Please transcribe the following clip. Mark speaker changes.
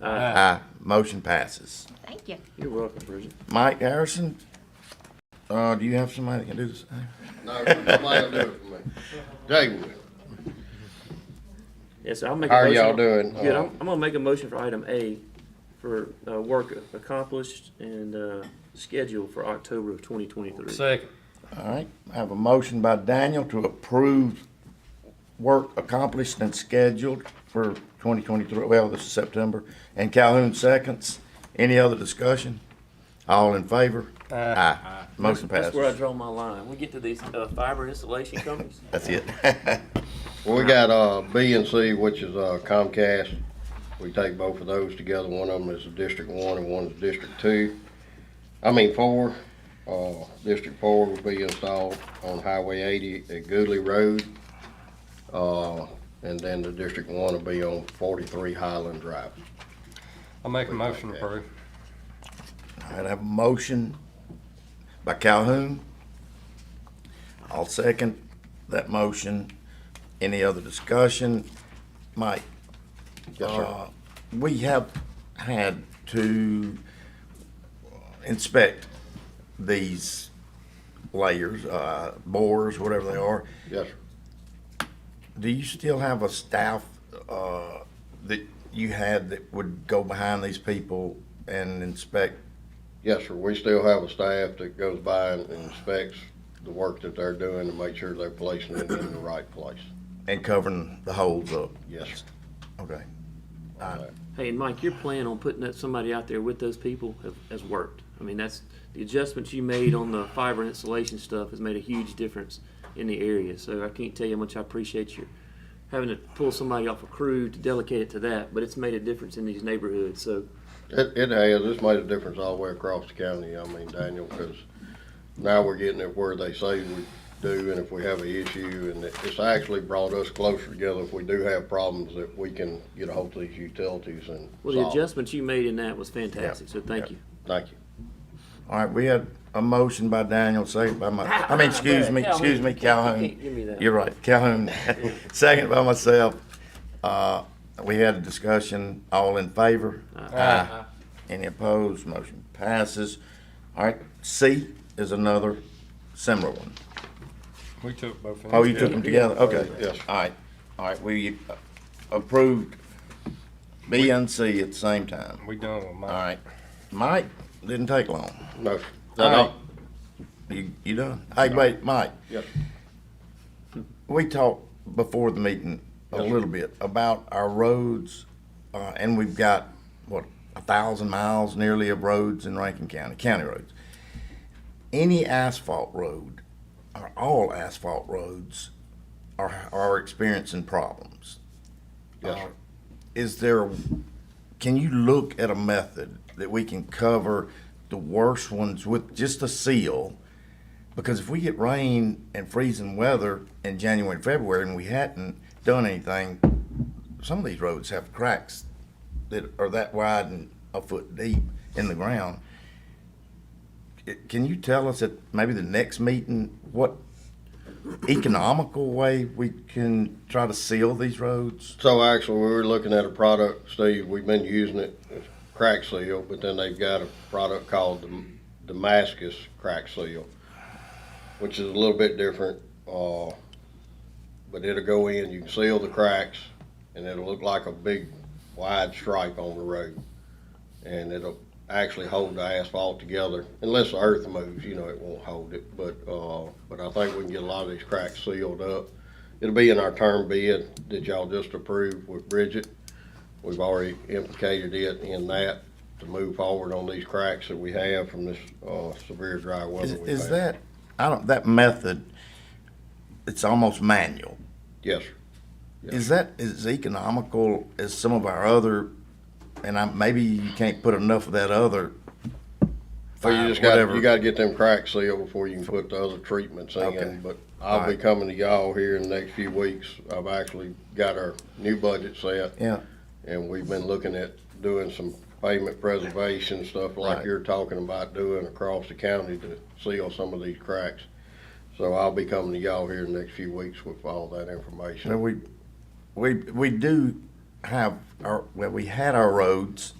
Speaker 1: Uh.
Speaker 2: Aye. Motion passes.
Speaker 3: Thank you.
Speaker 4: You're welcome, Bridget.
Speaker 2: Mike Harrison, uh, do you have somebody that can do this?
Speaker 5: No, somebody will do it for me. Jay will.
Speaker 4: Yes, sir, I'll make a
Speaker 5: How are
Speaker 4: motion.
Speaker 5: y'all doing?
Speaker 4: Good, I'm,
Speaker 5: Uh,
Speaker 4: I'm gonna make a motion for item A for, uh, work accomplished and, uh, schedule for October of twenty twenty-three.
Speaker 1: Second.
Speaker 2: All right, I have a motion by Daniel to approve work accomplished and scheduled for twenty twenty-three, well, this is September, and Calhoun seconds. Any other discussion? All in favor? Aye. Motion
Speaker 4: That's where I
Speaker 2: passes.
Speaker 4: draw my line. We get to these, uh, fiber installation companies.
Speaker 2: That's it.
Speaker 5: Well, we got, uh, B and C, which is uh, Comcast. We take both of those together. One of them is District One and one is District Two. I mean, four. Uh, District Four will be installed on Highway eighty at Goodley Road. Uh, and then the District One will be on forty-three Highland Drive.
Speaker 1: I'll make a motion to approve.
Speaker 2: All right, I have a motion by Calhoun. I'll second that motion. Any other discussion? Mike?
Speaker 5: Yes, sir.
Speaker 2: uh, We have had to inspect these layers, uh, bores, whatever they are.
Speaker 5: Yes, sir.
Speaker 2: Do you still have a staff uh, that you had that would go behind these people and inspect
Speaker 5: Yes, sir. We still have a staff that goes by and inspects the work that they're doing to make sure they're placing it in the right place.
Speaker 2: and covering the holes up?
Speaker 5: Yes, sir.
Speaker 2: Okay.
Speaker 4: Hey, and Mike, your plan on putting that somebody out there with those people have, has worked. I mean, that's, the adjustments you made on the fiber installation stuff has made a huge difference in the area. So I can't tell you how much I appreciate you having to pull somebody off a crew to delegate it to that, but it's made a difference in these neighborhoods, so.
Speaker 5: It, it has, it's made a difference all the way across the county, I mean, Daniel, because now we're getting it where they say we do, and if we have an issue, and it- it's actually brought us closer together, if we do have problems, that we can get ahold of these utilities and
Speaker 4: Well, the
Speaker 5: solve.
Speaker 4: adjustments you made in that was fantastic, so thank you.
Speaker 5: Thank you.
Speaker 2: All right, we had a motion by Daniel, second by my, I mean, excuse me, excuse me, Calhoun.
Speaker 4: Give me that.
Speaker 2: You're right, Calhoun, second by myself. Uh, we had a discussion, all in favor? Aye. Any opposed, motion passes. All right, C is another similar one.
Speaker 1: We took both. of
Speaker 2: Oh, you took them together, okay.
Speaker 5: Yes.
Speaker 2: All right, all right, we approved B and C at the same time.
Speaker 1: We done with
Speaker 2: All
Speaker 1: mine.
Speaker 2: right, Mike, didn't take long.
Speaker 5: No, sir.
Speaker 2: All
Speaker 5: No,
Speaker 2: right. You, you done? Hey, wait, Mike,
Speaker 5: yes,
Speaker 2: we talked before the meeting a
Speaker 5: Yes, sir.
Speaker 2: little bit about our roads, uh, and we've got, what, a thousand miles nearly of roads in Rankin County, county roads. Any asphalt road, or all asphalt roads, are, are experiencing problems.
Speaker 5: yes, sir.
Speaker 2: Is there, can you look at a method that we can cover the worst ones with just a seal? Because if we get rain and freezing weather in January and February and we hadn't done anything, some of these roads have cracks that are that wide and a foot deep in the ground. It- Can you tell us at maybe the next meeting, what economical way we can try to seal these roads?
Speaker 5: So actually, we were looking at a product, Steve, we've been using it, it's crack seal, but then they've got a product called Dam- Damascus crack seal, which is a little bit different, uh, but it'll go in, you can seal the cracks, and it'll look like a big wide stripe on the road. And it'll actually hold the asphalt together, unless the earth moves, you know, it won't hold it, but, uh, but I think we can get a lot of these cracks sealed up. It'll be in our term bid that y'all just approved with Bridget. We've already implicated it in that to move forward on these cracks that we have from this, uh, severe dry
Speaker 2: Is,
Speaker 5: weather we've
Speaker 2: is
Speaker 5: had.
Speaker 2: that, I don't, that method, it's almost manual.
Speaker 5: Yes, sir.
Speaker 2: Is that as economical as some of our other, and I, maybe you can't put enough of that other.
Speaker 5: Well, you
Speaker 2: fine,
Speaker 5: just got,
Speaker 2: whatever.
Speaker 5: you gotta get them cracks sealed before you can put the other treatments
Speaker 2: Okay.
Speaker 5: in, but I'll be
Speaker 2: Alright.
Speaker 5: coming to y'all here in the next few weeks. I've actually got our new budget set.
Speaker 2: Yeah,
Speaker 5: And we've been looking at doing some pavement preservation, stuff like
Speaker 2: Right.
Speaker 5: you're talking about doing across the county to seal some of these cracks. So I'll be coming to y'all here in the next few weeks with all that
Speaker 2: so
Speaker 5: information.
Speaker 2: we, we, we do have our, well, we had our roads